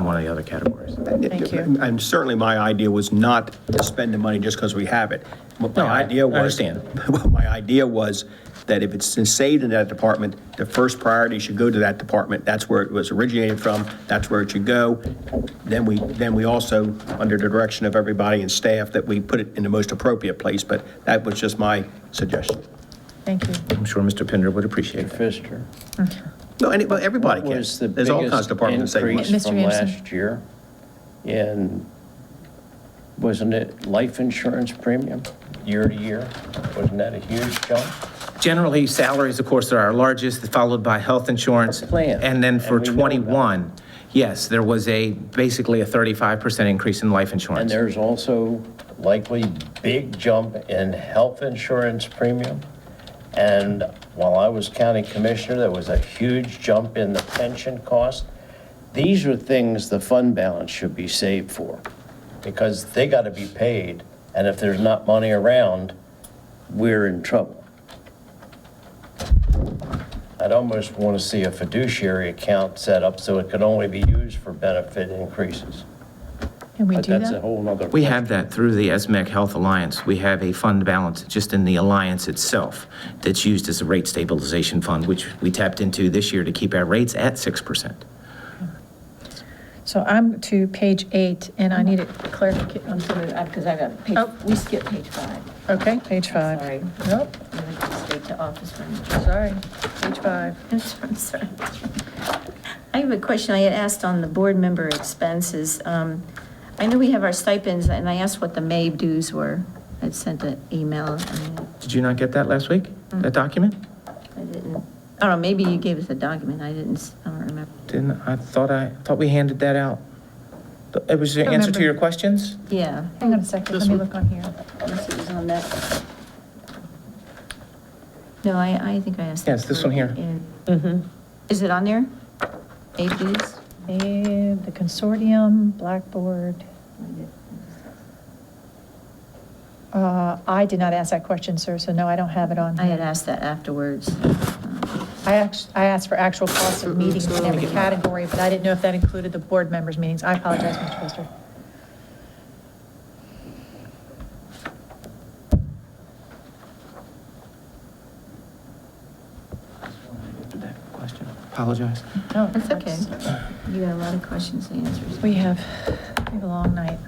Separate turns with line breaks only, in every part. one of the other categories.
Thank you.
And certainly, my idea was not to spend the money just because we have it. What
No, I-
My idea
I
was.
understand.
what My idea was that if it's saved in that department, the first priority should go to that department. That's where it was originated from, that's where it should go. Then we, then we also, under the direction of everybody and staff, that we put it in the most appropriate place, but that was just my suggestion.
Thank you.
I'm sure Mr. Pender would appreciate it.
Pfister.
No, any- well, everybody
What
can.
was the
There's all kinds of
biggest
departments that save money.
Mr.
increase from
Anderson.
last year? And wasn't it life insurance premium, year to year? Wasn't that a huge jump?
Generally, salaries, of course, are our largest, followed by health insurance.
Plan.
And then for
And we know about it.
21, yes, there was a, basically a 35% increase in life
And
insurance.
there's also likely big jump in health insurance premium. And while I was county commissioner, there was a huge jump in the pension cost. These are things the fund balance should be saved for, because they got to be paid. And if there's not money around, we're in trouble. I'd almost want to see a fiduciary account set up so it could only be used for benefit increases.
Can we
But
do
that's a
that?
whole nother.
We have that through the ESMAC Health Alliance. We have a fund balance just in the alliance itself that's used as a rate stabilization fund, which we tapped into this year to keep our rates at 6%.
So I'm to page eight, and
Mm-hmm.
I need it clarified.
I'm sorry, because I got,
Oh.
page- we skipped page five.
Okay, page five.
Sorry.
Nope,
We went straight to office manager.
sorry, page five.
I'm sorry. I have a question I had asked on the board member expenses. Um, I know we have our stipends, and I asked what the May dues were. I'd sent an email, and
Did you not get that last week, that document?
I didn't, I don't know, maybe you gave us a document, I didn't, s- I don't remember.
Didn't, I thought I, thought we handed that out. It was the answer to your questions?
Yeah,
Hang on a second, let me look on here.
unless it was on that. No, I, I think I asked.
Yes, this one here. Mm-hmm.
Yeah. Is it on there? May dues?
And the consortium, Blackboard. Uh, I did not ask that question, sir, so no, I don't have it on.
I had asked that afterwards. Um,
I act- I asked for actual costs
Mm-hmm.
of meetings in every category, but I didn't know if that included the board members' meetings. I apologize, Mr. Pfister.
That question, apologize.
No,
That's okay. You got a lot of questions and answers.
We have, we have a long night.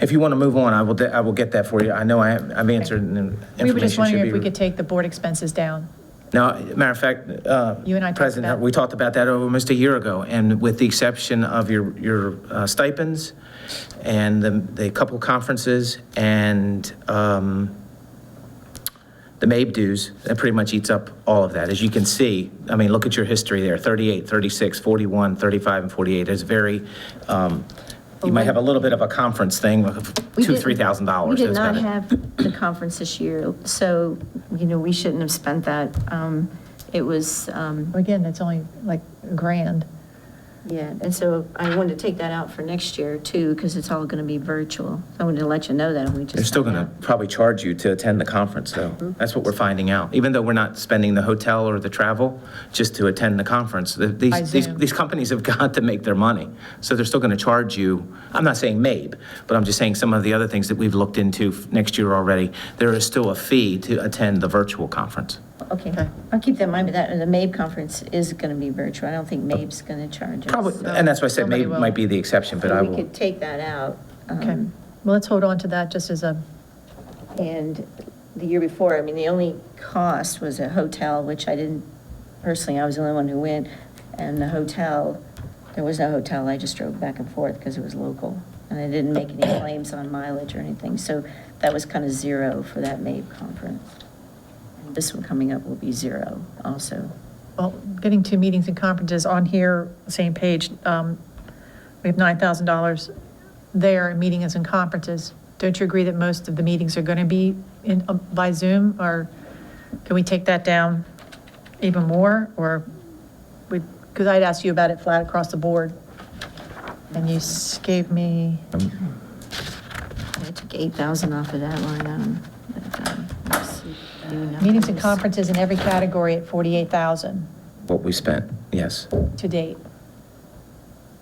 If you want to move on, I will, de- I will get that for you. I know I, I've answered and information should be.
We were just wondering if we could take the board expenses down.
Now, matter of fact, uh.
You and I talked
President,
about-
We talked about that almost a year ago, and with the exception of your, your uh, stipends and the, the couple conferences and, um, the MABE dues, that pretty much eats up all of that. As you can see, I mean, look at your history there, 38, 36, 41, 35, and 48. It's very, um, you might have a little bit of a conference thing of
We
two,
didn't-
$3,000.
We did
That's about
not
it.
have the conference this year, so, you know, we shouldn't have spent that. Um, It was, um,
Again, it's only like a grand.
yeah, and so I wanted to take that out for next year too, because it's all going to be virtual. I wanted to let you know that, and we just.
They're still going
found
to
out.
probably charge you to attend the conference, though.
Mm-hmm.
That's what we're finding out. Even though we're not spending the hotel or the travel just to attend the conference, the-
By
these, these
Zoom.
these companies have got to make their money. So they're still going to charge you, I'm not saying MABE, but I'm just saying some of the other things that we've looked into f- next year already. There is still a fee to attend the virtual conference.
Okay, I'll keep that in mind, but that, the MABE conference is going to be virtual. I don't think MABE's going to charge us.
Probably,
so
and that's why I said
Somebody
MABE
will.
might be the exception, but I
We
will.
could take that out.
Okay,
um,
well, let's hold on to that just as a,
And the year before, I mean, the only cost was a hotel, which I didn't, personally, I was the only one who went. And the hotel, there was no hotel, I just drove back and forth because it was local. And I didn't make any claims on mileage or anything, so that was kind of zero for that MABE conference. And This one coming up will be zero also.
well, getting two meetings and conferences on here, same page. um, We have $9,000 there in meetings and conferences. Don't you agree that most of the meetings are going to be in, um, by Zoom? Or can we take that down even more? Or we, because I'd asked you about it flat across the board. And you s- gave me,
I took 8,000 off of that line item. but, um, let's see, do nothing.
meetings and conferences in every category at 48,000
What we spent, yes.
to date.